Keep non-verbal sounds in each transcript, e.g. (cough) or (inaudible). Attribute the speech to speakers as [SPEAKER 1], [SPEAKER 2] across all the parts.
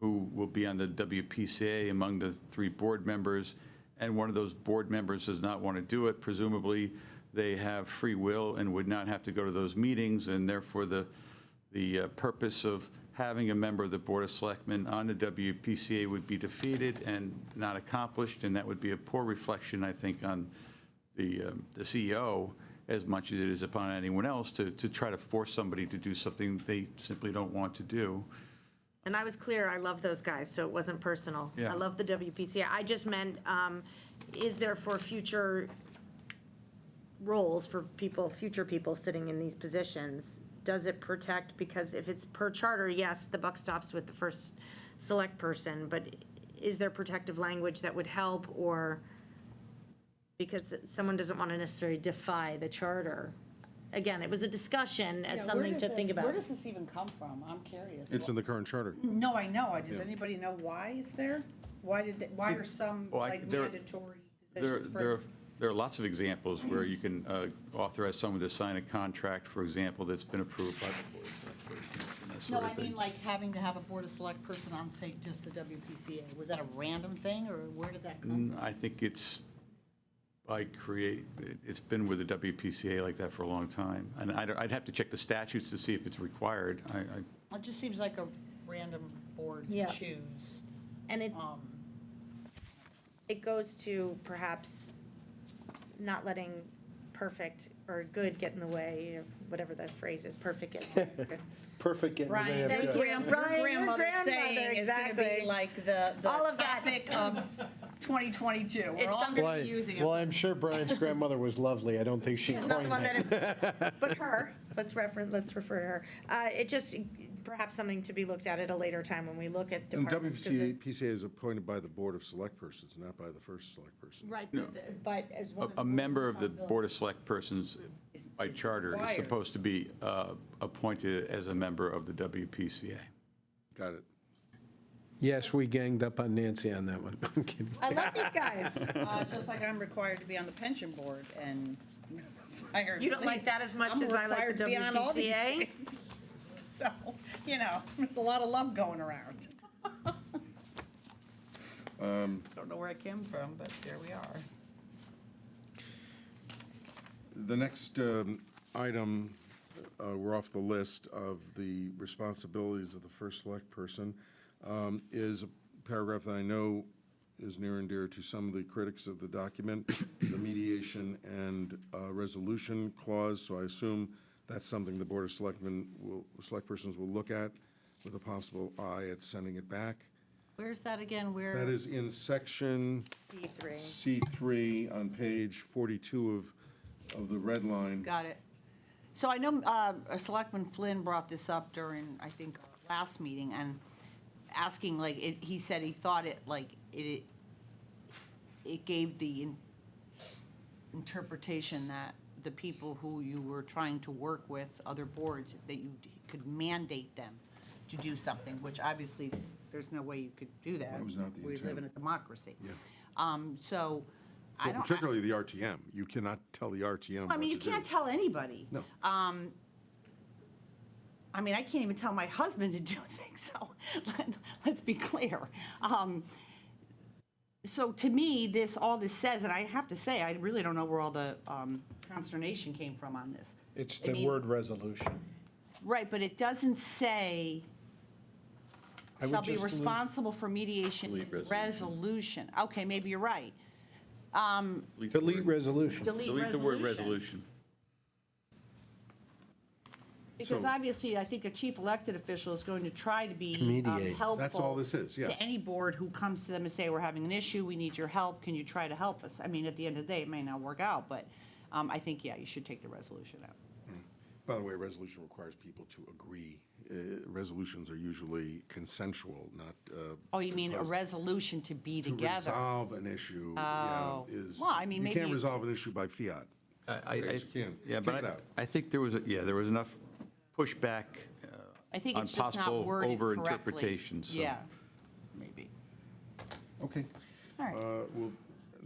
[SPEAKER 1] who will be on the WPCA among the three board members, and one of those board members does not want to do it, presumably they have free will and would not have to go to those meetings, and therefore the, the uh, purpose of having a member of the Board of Selectmen on the WPCA would be defeated and not accomplished, and that would be a poor reflection, I think, on the um, the CEO as much as it is upon anyone else to, to try to force somebody to do something they simply don't want to do.
[SPEAKER 2] And I was clear, I love those guys, so it wasn't personal.
[SPEAKER 1] Yeah.
[SPEAKER 2] I love the WPCA. I just meant, um, is there for future roles for people, future people sitting in these positions? Does it protect, because if it's per charter, yes, the buck stops with the first select person, but is there protective language that would help or? Because someone doesn't want to necessarily defy the charter. Again, it was a discussion as
[SPEAKER 3] Yeah, where
[SPEAKER 2] something
[SPEAKER 3] does
[SPEAKER 2] to
[SPEAKER 3] this-
[SPEAKER 2] think about.
[SPEAKER 3] Where does this even come from? I'm curious.
[SPEAKER 4] It's in the current charter.
[SPEAKER 3] No, I know. Does anybody know why it's there? Why did, they- why are some
[SPEAKER 1] Well, I-
[SPEAKER 3] like
[SPEAKER 1] there-
[SPEAKER 3] mandatory
[SPEAKER 1] There,
[SPEAKER 3] positions
[SPEAKER 1] there,
[SPEAKER 3] for?
[SPEAKER 1] there are lots of examples where you can uh, authorize someone to sign a contract, for example, that's been approved by the board. of Selectmen and that
[SPEAKER 3] No,
[SPEAKER 1] sort of
[SPEAKER 3] I mean
[SPEAKER 1] thing.
[SPEAKER 3] like having to have a board of select person on, say, just the WPCA. Was that a random thing or where did that come?
[SPEAKER 1] I think it's, I create, it's been with the WPCA like that for a long time. And I don't- I'd have to check the statutes to see if it's required. I, I
[SPEAKER 3] It just seems like a random board to
[SPEAKER 2] Yeah.
[SPEAKER 3] choose.
[SPEAKER 2] And it,
[SPEAKER 3] Um,
[SPEAKER 2] it goes to perhaps not letting perfect or good get in the way, or whatever that phrase is, perfect get. in the way.
[SPEAKER 5] Perfect getting
[SPEAKER 3] Brian,
[SPEAKER 5] the
[SPEAKER 2] thank
[SPEAKER 5] day
[SPEAKER 3] your
[SPEAKER 2] you.
[SPEAKER 5] of
[SPEAKER 2] Brian,
[SPEAKER 3] grand-
[SPEAKER 2] your
[SPEAKER 3] your grandmother
[SPEAKER 2] grandmother,
[SPEAKER 3] saying is gonna be
[SPEAKER 2] exactly.
[SPEAKER 3] like the, the
[SPEAKER 2] All of that.
[SPEAKER 3] topic (laughs) of twenty twenty-two. We're
[SPEAKER 2] It's
[SPEAKER 3] all
[SPEAKER 2] some-
[SPEAKER 3] gonna be
[SPEAKER 5] Brian.
[SPEAKER 3] using it.
[SPEAKER 5] Well, I'm sure Brian's grandmother was lovely. I don't think she
[SPEAKER 2] She's not the
[SPEAKER 5] coined
[SPEAKER 2] one
[SPEAKER 5] that.
[SPEAKER 2] that, (laughs) but her, let's refer, let's refer to her. Uh, it just, perhaps something to be looked at at a later time when we look at
[SPEAKER 4] And
[SPEAKER 2] departments. 'cause
[SPEAKER 4] WPCA
[SPEAKER 2] it-
[SPEAKER 4] PCA is appointed by the Board of Select Persons, not by the first Select Person.
[SPEAKER 6] Right, but- but as one
[SPEAKER 1] A-
[SPEAKER 6] of.
[SPEAKER 1] A
[SPEAKER 6] the
[SPEAKER 1] member of the
[SPEAKER 6] responsibilities.
[SPEAKER 1] Board of Select Persons by
[SPEAKER 3] is
[SPEAKER 1] charter is
[SPEAKER 3] required.
[SPEAKER 1] supposed to be uh, appointed as a member of the WPCA.
[SPEAKER 4] Got it.
[SPEAKER 5] Yes, we ganged up on Nancy on that one. (laughs) I'm kidding.
[SPEAKER 2] I love these guys.
[SPEAKER 3] (laughs) Uh, just like I'm required to be on the pension board and (laughs) fire.
[SPEAKER 2] You don't like that as much
[SPEAKER 3] I'm
[SPEAKER 2] as I like
[SPEAKER 3] required
[SPEAKER 2] the
[SPEAKER 3] to be on all these
[SPEAKER 2] WPCA?
[SPEAKER 3] things. (laughs) So, you know, there's a lot of love going around.
[SPEAKER 4] Um,
[SPEAKER 3] Don't know where I came from, but there we are.
[SPEAKER 4] The next um, item, uh, we're off the list of the responsibilities of the first Select Person, um, is a paragraph that I know is near and dear to some of the critics of the document, the mediation and uh, resolution clause, so I assume that's something the Board of Selectmen will, Select Persons will look at with a possible eye at sending it back.
[SPEAKER 3] Where's that again? Where?
[SPEAKER 4] That is in section
[SPEAKER 2] C three.
[SPEAKER 4] C3 on page 42 of, of the red line.
[SPEAKER 3] Got it. So I know um, uh, Selectman Flynn brought this up during, I think, our last meeting, and asking, like, it- he said he thought it, like, it, it gave the in- interpretation that the people who you were trying to work with, other boards, that you could mandate them to do something, which obviously, there's no way you could do that.
[SPEAKER 4] That was not the
[SPEAKER 3] We live
[SPEAKER 4] intent.
[SPEAKER 3] in a democracy. Um, So, I
[SPEAKER 4] Well,
[SPEAKER 3] don't. I-
[SPEAKER 4] particularly the RTM. You cannot tell the RTM
[SPEAKER 3] I
[SPEAKER 4] what
[SPEAKER 3] mean, you
[SPEAKER 4] to do.
[SPEAKER 3] can't tell Um, anybody.
[SPEAKER 4] No.
[SPEAKER 3] I mean, I can't even tell my husband to do (laughs) things, so let, let's be clear. Um, so to me, this, all this says, and I have to say, I really don't know where all the um, consternation came from on this.
[SPEAKER 5] It's
[SPEAKER 3] I
[SPEAKER 5] the
[SPEAKER 3] mean-
[SPEAKER 5] word resolution.
[SPEAKER 3] Right, but it doesn't say
[SPEAKER 5] I would
[SPEAKER 3] shall be
[SPEAKER 5] just leave-
[SPEAKER 3] responsible for mediation
[SPEAKER 1] Delete
[SPEAKER 3] and
[SPEAKER 1] resolution.
[SPEAKER 3] resolution. Okay, maybe you're right.
[SPEAKER 5] Delete resolution.
[SPEAKER 3] Delete resolution.
[SPEAKER 1] Delete the word resolution.
[SPEAKER 3] Because
[SPEAKER 4] So-
[SPEAKER 3] obviously, I think a chief elected official is going to try to be um,
[SPEAKER 5] Mediate.
[SPEAKER 3] helpful.
[SPEAKER 4] That's all this is, yeah.
[SPEAKER 3] To any board who comes to them and say, we're having an issue, we need your help, can you try to help us? I mean, at the end of the day, it may not work out, but um, I think, yeah, you should take the resolution out.
[SPEAKER 4] By the way, a resolution requires people to agree. Uh, Resolutions are usually consensual, not. uh,
[SPEAKER 3] Oh, you mean a
[SPEAKER 4] opposed.
[SPEAKER 3] resolution to be
[SPEAKER 4] To
[SPEAKER 3] together?
[SPEAKER 4] resolve an issue yeah,
[SPEAKER 3] Oh.
[SPEAKER 4] is.
[SPEAKER 3] Well, I mean,
[SPEAKER 4] You can't
[SPEAKER 3] maybe-
[SPEAKER 4] resolve an issue by fiat.
[SPEAKER 1] I,
[SPEAKER 4] Yes, you can.
[SPEAKER 1] Yeah,
[SPEAKER 4] Take it
[SPEAKER 1] but
[SPEAKER 4] out.
[SPEAKER 1] I, I think there was, a- yeah, there was enough pushback uh,
[SPEAKER 3] I think
[SPEAKER 1] on
[SPEAKER 3] it's just
[SPEAKER 1] possible
[SPEAKER 3] not worded correctly.
[SPEAKER 1] overinterpretations. so-
[SPEAKER 3] Yeah, maybe.
[SPEAKER 4] Okay.
[SPEAKER 3] All right.
[SPEAKER 4] Uh, Well,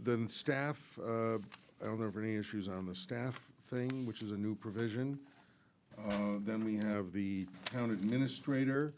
[SPEAKER 4] then staff, uh, I don't know if there are any issues on the staff thing, which is a new provision. Uh, Then we have the town administrator.